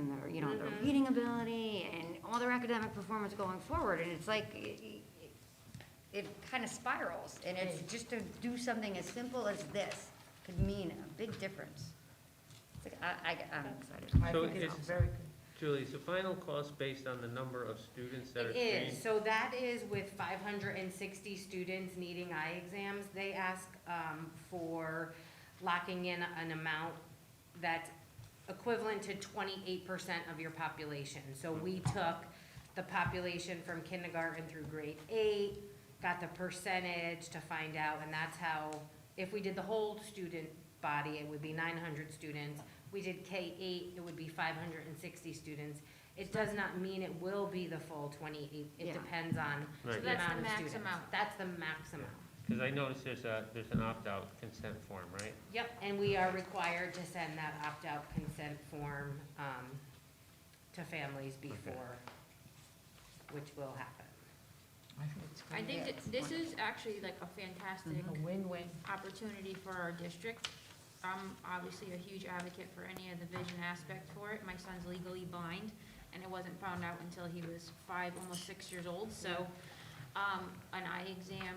Mm-hmm. accountability and all their academic performance going forward, and it's like, it- it- it kind of spirals, and it's just to do something as simple as this could mean a big difference. It's like, I, I, I'm excited. I So think it's it's- very good. Julie, is the final cost based on the number of students that are It trained? is, so that is with five hundred and sixty students needing eye exams, they ask, um, for locking in an amount that's equivalent to twenty-eight percent of your population. So we took the population from kindergarten through grade eight, got the percentage to find out, and that's how, if we did the whole student body, it would be nine hundred students. We did K eight, it would be five hundred and sixty students. It does not mean it will be the full twenty-eight, Yeah. it depends on the Right. amount of students. So that's the max amount. That's the max amount. Because I noticed there's a, there's an opt-out consent form, right? Yep, and we are required to send that opt-out consent form, um, to families before, which will happen. I think it's I good. think that this is actually like a fantastic Mm-hmm. A win-win. opportunity for our district. I'm obviously a huge advocate for any of the vision aspect for it. My son's legally blind, and it wasn't found out until he was five, almost six years old, so, um, an eye exam,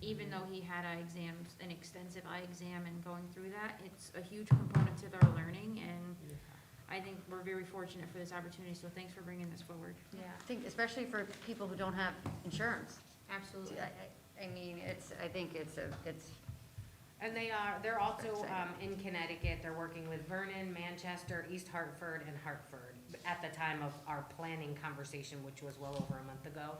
even though he had eye exams, an extensive eye exam and going through that, it's a huge component to their learning, and I think we're very fortunate for this opportunity, so thanks for bringing this forward. Yeah, I think especially for people who don't have insurance. Absolutely. I, I- I mean, it's, I think it's a, it's, And they are, they're also, Exciting. um, in Connecticut, they're working with Vernon, Manchester, East Hartford, and Hartford at the time of our planning conversation, which was well over a month ago,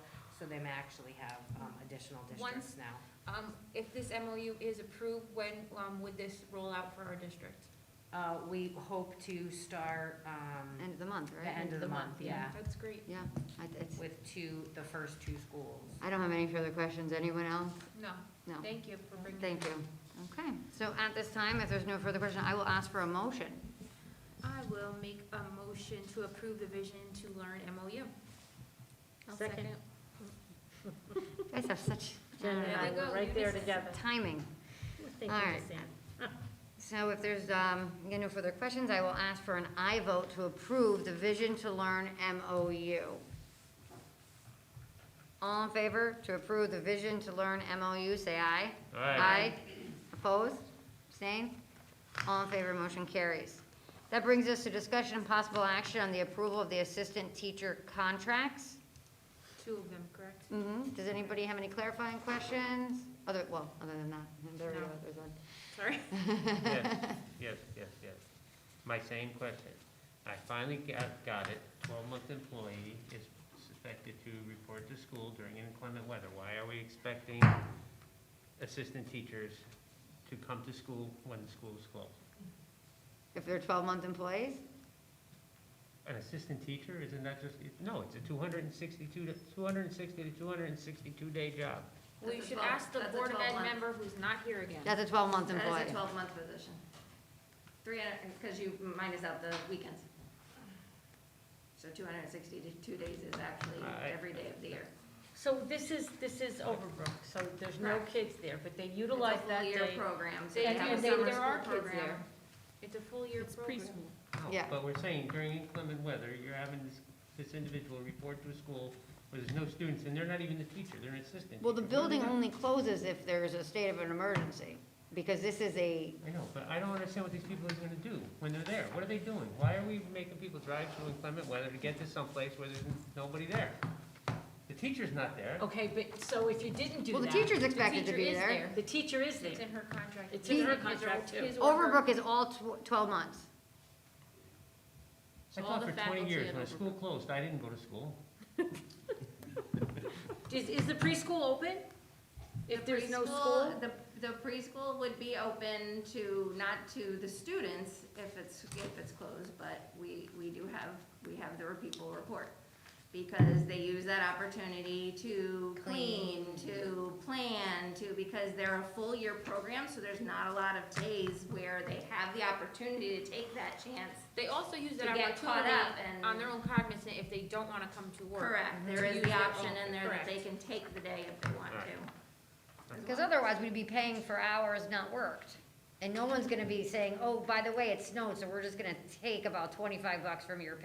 so they may actually have, um, additional districts Once- now. Um, if this MOU is approved, when, um, would this roll out for our district? Uh, we hope to start, um, end of the month, right? the end of the month, yeah, That's great. Yeah, I, it's, with two, the first two schools. I don't have any further questions. Anyone else? No, No. thank you for bringing. Thank you. Okay, so at this time, if there's no further question, I will ask for a motion. I will make a motion to approve the Vision to Learn MOU. I'll second. You guys have such Jen and There we I go, were right you there just- together. timing. We're thinking All right. the same. So if there's, um, again, no further questions, I will ask for an aye vote to approve the Vision to Learn MOU. All in favor to approve the Vision to Learn MOU, say aye. Aye. Opposed? Abstained? All in favor, motion carries. That brings us to discussion and possible action on the approval of the assistant teacher contracts. Two of them, correct? hmm Does anybody have any clarifying questions? Other, well, other than that, there we go, No. there's one. Sorry. Yes, yes, yes, yes. My same question. I finally got, got it. Twelve-month employee is suspected to report to school during inclement weather. Why are we expecting assistant teachers to come to school when the school's closed? If they're twelve-month employees? An assistant teacher, isn't that just, no, it's a two hundred and sixty-two, two hundred and sixty to two hundred and sixty-two day job. We That's a should twelve- ask the that's a Board of Ed 12 month. member who's not here again. That's a twelve-month employee. That is a twelve-month position. Three hundred, because you minus out the weekends. So two hundred and sixty-two days is actually I- every day of the year. So this is, this is Overbrook, so there's no Correct. kids there, but they utilize that It's day. a full-year program, so They you do- have a they- summer there are school kids program. there. It's a full year It's program. preschool. No, Yeah. Oh, But we're saying during inclement weather, you're having this, this individual report to a school where there's no students, and they're not even the teacher, they're an assistant. Well, the teacher. What do we building do? only closes if there's a state of an emergency, because this is a, I know, but I don't understand what these people are gonna do when they're there. What are they doing? Why are we making people drive through inclement weather to get to someplace where there's nobody there? The teacher's not there. Okay, but, so if you didn't do well, that. the teacher's expected to teacher be is there. The teacher is It's there. in her contract. It's in her His or- contract, too. his or her- Overbrook is all tw- twelve months. I all taught the for twenty faculty years. at When a school closed, I didn't go to school. Is, is the preschool open? If there's no school? The, the preschool would be open to, not to the students if it's, if it's closed, but we, we do have, we have the people report. Because they use that opportunity to clean, to plan, to, because they're a full year program, so there's not a lot of days where they have the opportunity to take that chance. They also use that To get caught up opportunity and- on their own cognizant if they don't wanna come to work. Correct, there to is use the their option own- in there that they correct. can take the day if they want to. Because otherwise, we'd be paying for hours not worked. And no one's gonna be saying, oh, by the way, it snowed, so we're just gonna take about twenty-five bucks from your pay